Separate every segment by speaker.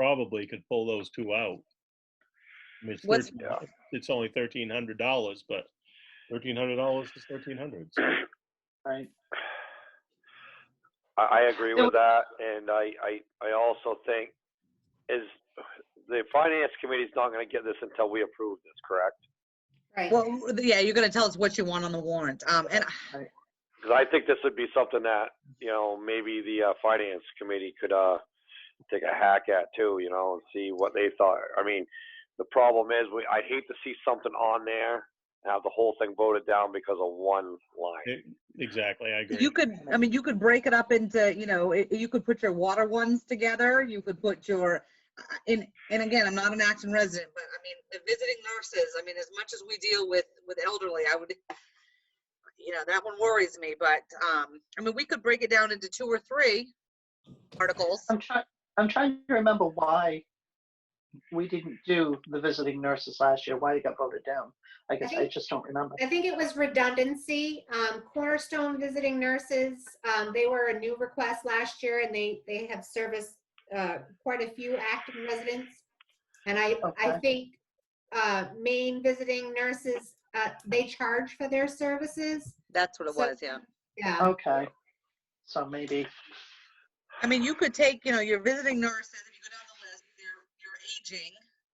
Speaker 1: probably could pull those two out. I mean, it's,
Speaker 2: What's-
Speaker 1: 13 it's only thirteen hundred dollars, but thirteen hundred dollars is thirteen hundred.
Speaker 2: right?
Speaker 3: I, I agree with that, and I, I, I also think is, the finance committee's not gonna get this until we approve this, correct?
Speaker 4: Right.
Speaker 2: Well, yeah, you're gonna tell us what you want on the warrant. Um, and
Speaker 3: Because I think this would be something that, you know, maybe the, uh, finance committee could, uh, take a hack at too, you know, and see what they thought. I mean, the problem is, we, I'd hate to see something on there, and have the whole thing voted down because of one line.
Speaker 1: E, Exactly, I agree.
Speaker 2: you could, I mean, you could break it up into, you know, it- you could put your water ones together. You could put your, uh, and, and again, I'm not an Acton resident, but I mean, the visiting nurses, I mean, as much as we deal with, with elderly, I would, you know, that one worries me, but, um, I mean, we could break it down into two or three articles.
Speaker 5: I'm trying, I'm trying to remember why we didn't do the visiting nurses last year, why it got voted down. I guess I
Speaker 4: think-
Speaker 5: just don't remember.
Speaker 4: I think it was redundancy. Um, Cornerstone Visiting Nurses, um, they were a new request last year and they, they have serviced, uh, quite a few active residents. And I, I
Speaker 5: Okay.
Speaker 4: think, uh, Maine Visiting Nurses, uh, they charge for their services.
Speaker 2: That's what it
Speaker 4: So-
Speaker 2: was, yeah.
Speaker 4: Yeah.
Speaker 5: Okay. So maybe,
Speaker 2: I mean, you could take, you know, your visiting nurses, if you go down the list, your, your aging,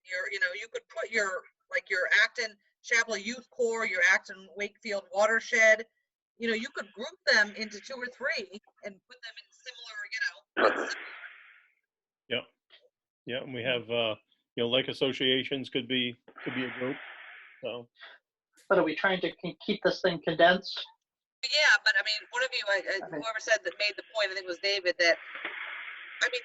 Speaker 2: your, you know, you could put your, like your Acton Chapel Youth Corps, your Acton Wakefield Watershed, you know, you could group them into two or three and put them in similar, you know.
Speaker 1: Yeah, and we have, uh, you know, like associations could be, could be a group, so.
Speaker 5: but are we trying to ke- keep this thing condensed?
Speaker 2: But Yeah, but I mean, one of you, I- I-
Speaker 5: Okay.
Speaker 2: whoever said that made the point, I think it was David, that, I mean,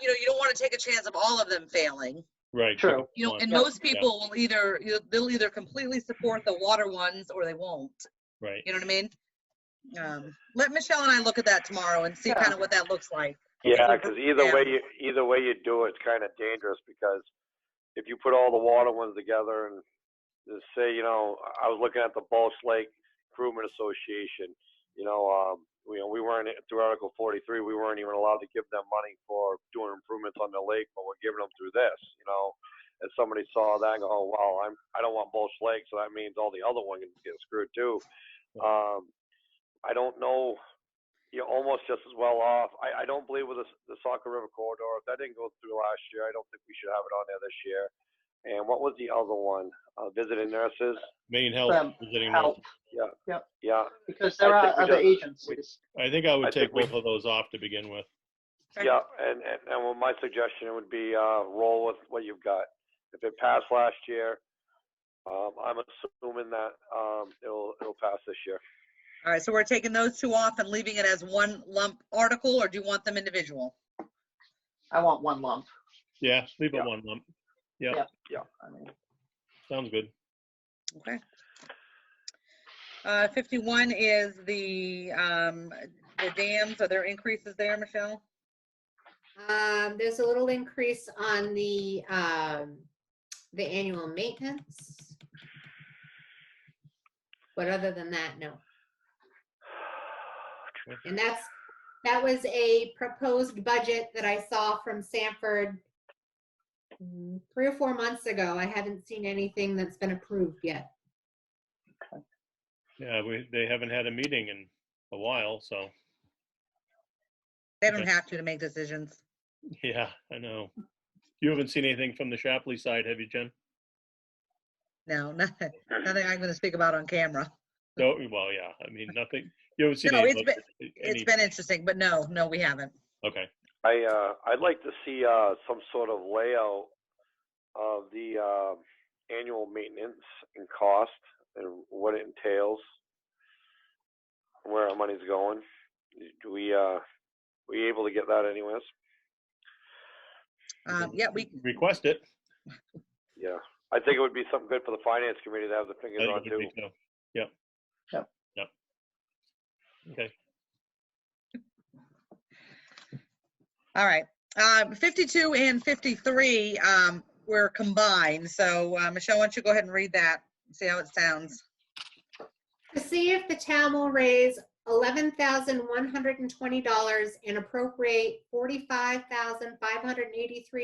Speaker 2: you know, you don't want to take a chance of all of them failing.
Speaker 1: Right.
Speaker 5: True.
Speaker 1: different
Speaker 2: You know,
Speaker 1: ones,
Speaker 2: and
Speaker 5: Yeah.
Speaker 2: most people will either, you know, they'll either completely support the water ones or they won't.
Speaker 1: Right.
Speaker 2: You know what I mean? Um, let Michelle and I look at that tomorrow and see
Speaker 5: Yeah.
Speaker 2: kind of what that looks like.
Speaker 3: Yeah,
Speaker 2: Yeah.
Speaker 3: because either way
Speaker 2: Yeah.
Speaker 3: you either way you do it, it's kind of dangerous because if you put all the water ones together and just say, you know, I I was looking at the Bulch Lake Crewman Association, you know, um, we we weren't through Article 43, we weren't even allowed to give them money for doing improvements on the lake, but we're giving them through this, you know. And somebody saw that and go, oh wow, I'm I don't want Bulch Lake, so that means all the other ones get screwed too. Um, I don't know you're almost just as well off. I, I don't believe with the, the Saco River corridor, if that didn't go through last year, I don't think we should have it on there this year. And what was the other one? Uh, visiting nurses?
Speaker 1: Main health.
Speaker 5: Um,
Speaker 1: visiting
Speaker 5: Help,
Speaker 1: nurses.
Speaker 3: Yeah.
Speaker 5: because there
Speaker 3: I think
Speaker 5: are
Speaker 3: we
Speaker 5: other
Speaker 3: just- we-
Speaker 5: agencies.
Speaker 1: I think I
Speaker 3: I
Speaker 1: would take
Speaker 3: think we-
Speaker 1: both of those off to begin with.
Speaker 2: Okay.
Speaker 3: Yeah, and, and, and well, my suggestion would be, uh, roll with what you've got. If it passed last year, um, I'm assuming that, um, it'll, it'll pass this year.
Speaker 2: All right, so we're taking those two off and leaving it as one lump article, or do you want them individual?
Speaker 5: I want one lump.
Speaker 1: Yeah, leave it
Speaker 3: Yeah.
Speaker 1: one lump.
Speaker 5: I mean,
Speaker 1: Sounds good.
Speaker 2: Okay. Uh, fifty-one is the, um, the dams, are there increases there, Michelle?
Speaker 4: Um, there's a little increase on the, um, the annual maintenance. But other than that, no. And that's, that was a proposed budget that I saw from Sanford mm, three or four months ago. I haven't seen anything that's been approved yet.
Speaker 1: Yeah, we, they haven't had a meeting in a while, so,
Speaker 2: They don't
Speaker 1: Okay.
Speaker 2: have to to make decisions.
Speaker 1: yeah, I know. You haven't seen anything from the Shapley side, have you, Jen?
Speaker 2: No, nothing, nothing I'm gonna speak about on camera.
Speaker 1: No, well, yeah, I mean, nothing, you haven't seen
Speaker 2: No,
Speaker 1: any,
Speaker 2: it's
Speaker 1: votes,
Speaker 2: It's
Speaker 1: any,
Speaker 2: been interesting, but no, no, we haven't.
Speaker 1: okay,
Speaker 3: I, uh, I'd like to see, uh, some sort of layout of the, uh, annual maintenance and cost and what it entails, where our money's going. Do we, uh, we able to get that anyways?
Speaker 2: Um, yeah, we,
Speaker 1: request it.
Speaker 3: Yeah. I think it would be something good for the finance committee to have the
Speaker 1: I
Speaker 3: fingers
Speaker 1: think
Speaker 3: on
Speaker 1: it would
Speaker 3: too.
Speaker 1: be so. Yep.
Speaker 5: Yep.
Speaker 1: Yep. Okay,
Speaker 2: All right, um, fifty-two and fifty-three, um, were combined, so, uh, Michelle, why don't you go ahead and read that, see how it sounds?
Speaker 4: To see if the town will raise eleven thousand one hundred and twenty dollars and appropriate forty-five thousand five hundred and eighty-three